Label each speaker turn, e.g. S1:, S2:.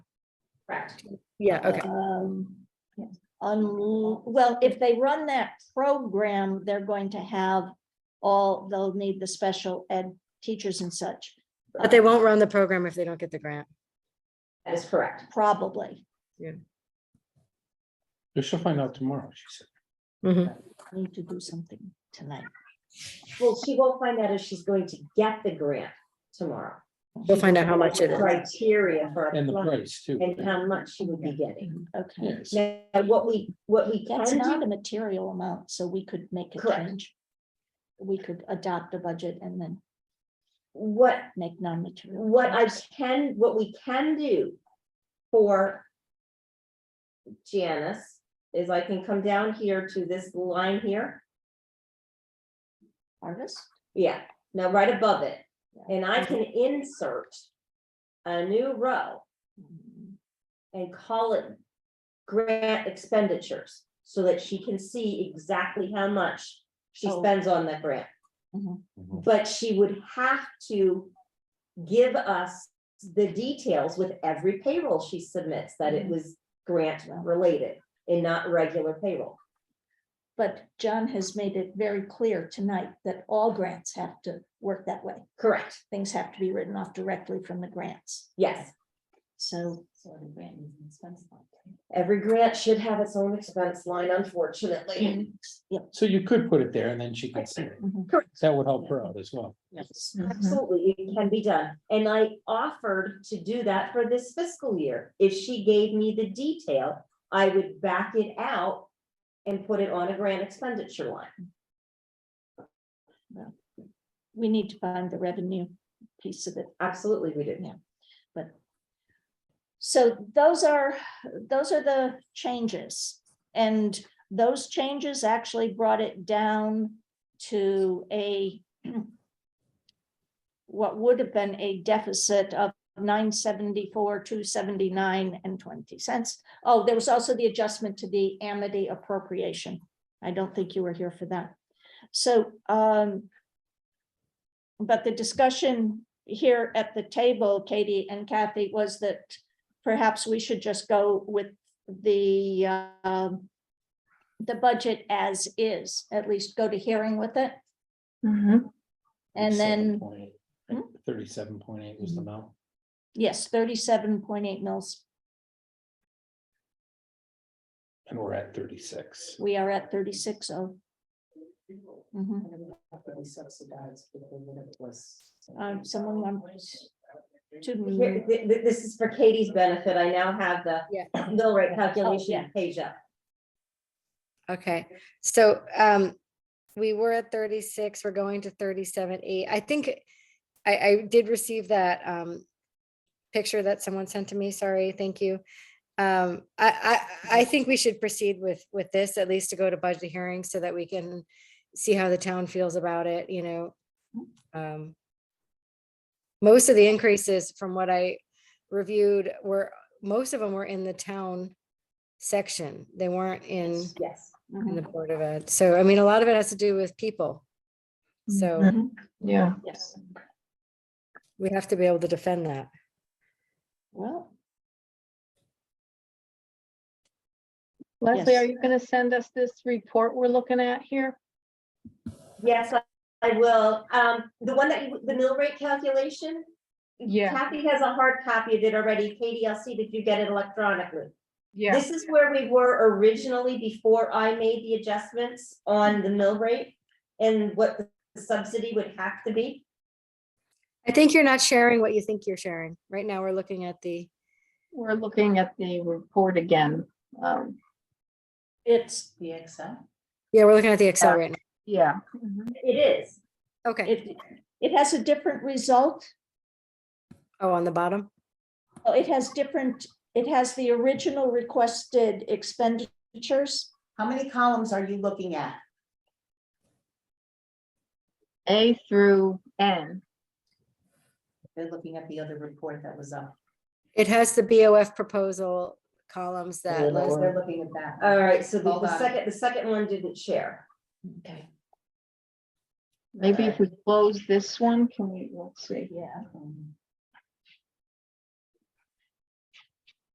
S1: Correct.
S2: Yeah, okay.
S3: Um, un- well, if they run that program, they're going to have all, they'll need the special ed teachers and such,
S2: But they won't run the program if they don't get the grant.
S1: That is correct.
S3: probably.
S4: They should find out tomorrow, she said.
S2: Mhm.
S3: Need to do something tonight.
S1: Well, she will find out if she's going to get the grant tomorrow.
S2: We'll find out how much it is.
S1: Criteria for.
S4: And the
S1: applying
S4: price too.
S1: And how much she would be getting.
S3: Okay,
S4: Yes,
S1: Now, what we, what we can
S3: that's not
S1: do,
S3: a material amount, so we could make a
S1: Correct.
S3: change. We could adopt a budget and then
S1: what,
S3: make non-material.
S1: what I
S3: changes.
S1: can, what we can do for Janice is I can come down here to this line here.
S3: Artist,
S1: Yeah, now right above it.
S3: Yeah.
S1: And I can insert a new row
S3: Mm,
S1: and call it grant expenditures so that she can see exactly how much she
S3: Oh.
S1: spends on the grant.
S3: Mhm.
S4: Mhm.
S1: But she would have to give us the details with every payroll she submits, that it
S3: Mhm.
S1: was grant related and not regular payroll.
S3: But John has made it very clear tonight that all grants have to work that way.
S1: Correct,
S3: things have to be written off directly from the grants,
S1: yes.
S3: so.
S1: Every grant should have its own expense line, unfortunately.
S3: Yep.
S4: so you could put it there and then she could see it.
S3: mhm,
S4: That would help her out as well.
S3: yes,
S1: Absolutely, it can be done. And I offered to do that for this fiscal year. If she gave me the detail, I would back it out and put it on a grant expenditure line.
S3: We need to find the revenue piece of it.
S1: Absolutely, we
S3: Yeah.
S1: do.
S3: So those are, those are the changes. And those changes actually brought it down to a what would have been a deficit of nine seventy-four, two seventy-nine and twenty cents. Oh, there was also the adjustment to the Amity appropriation. I don't think you were here for that. So, um, but the discussion here at the table, Katie and Kathy, was that perhaps we should just go with the, um, the budget as is, at least go to hearing with it. And then. Hmm? Mm-hmm.
S4: 37.8, right? Thirty-seven point eight was the amount.
S3: Yes, thirty-seven point eight mils.
S4: and we're at thirty-six.
S3: We are at thirty-six oh. Mhm. Um, someone wants to.
S1: Here, th- th- this is for Katie's benefit. I now have the
S2: Yeah.
S1: mill rate
S3: yeah.
S1: calculation page up.
S2: Okay, so um, we were at thirty-six, we're going to thirty-seven, eight. I think I, I did receive that um picture that someone sent to me. Sorry, thank you. Um, I, I, I think we should proceed with, with this, at least to go to budget hearing so that we can see how the town feels about it, you know? Um, Most of the increases from what I reviewed were, most of them were in the town section. They weren't in
S1: Yes.
S3: Mm-hmm.
S2: in the Board of Ed. So, I mean, a lot of it has to do with people. So
S5: Yeah,
S3: Yes,
S2: we have to be able to defend that.
S3: well,
S5: Leslie,
S3: Yes.
S5: are you gonna send us this report we're looking at here?
S1: Yes, I- I will. Um, the one that, you- the mill rate calculation,
S5: Yeah,
S1: Kathy has a hard copy of it already. Katie, I'll see that you get it electronically.
S5: yeah,
S1: This is where we were originally before I made the adjustments on the mill rate and what the subsidy would have to be.
S2: I think you're not sharing what you think you're sharing. Right now, we're looking at the,
S5: we're looking at the report again. Um,
S3: it's,
S6: The Excel?
S2: yeah, we're looking at the Excel right
S5: yeah.
S1: It is.
S2: now. Okay.
S3: it, it has a different result.
S2: Oh, on the bottom.
S3: Oh, It has different, it has the original requested expenditures.
S6: How many columns are you looking at?
S5: A through N.
S6: They're looking at the other report that was up.
S2: It has the BOF proposal columns that,
S4: Hello.
S2: Liz-
S6: They're looking at that.
S1: All right, so the-
S6: Hold
S1: the
S6: on.
S1: second, the second one didn't share.
S6: Okay.
S5: Maybe if we close this one, can we, let's see.
S3: Yeah.
S6: Um,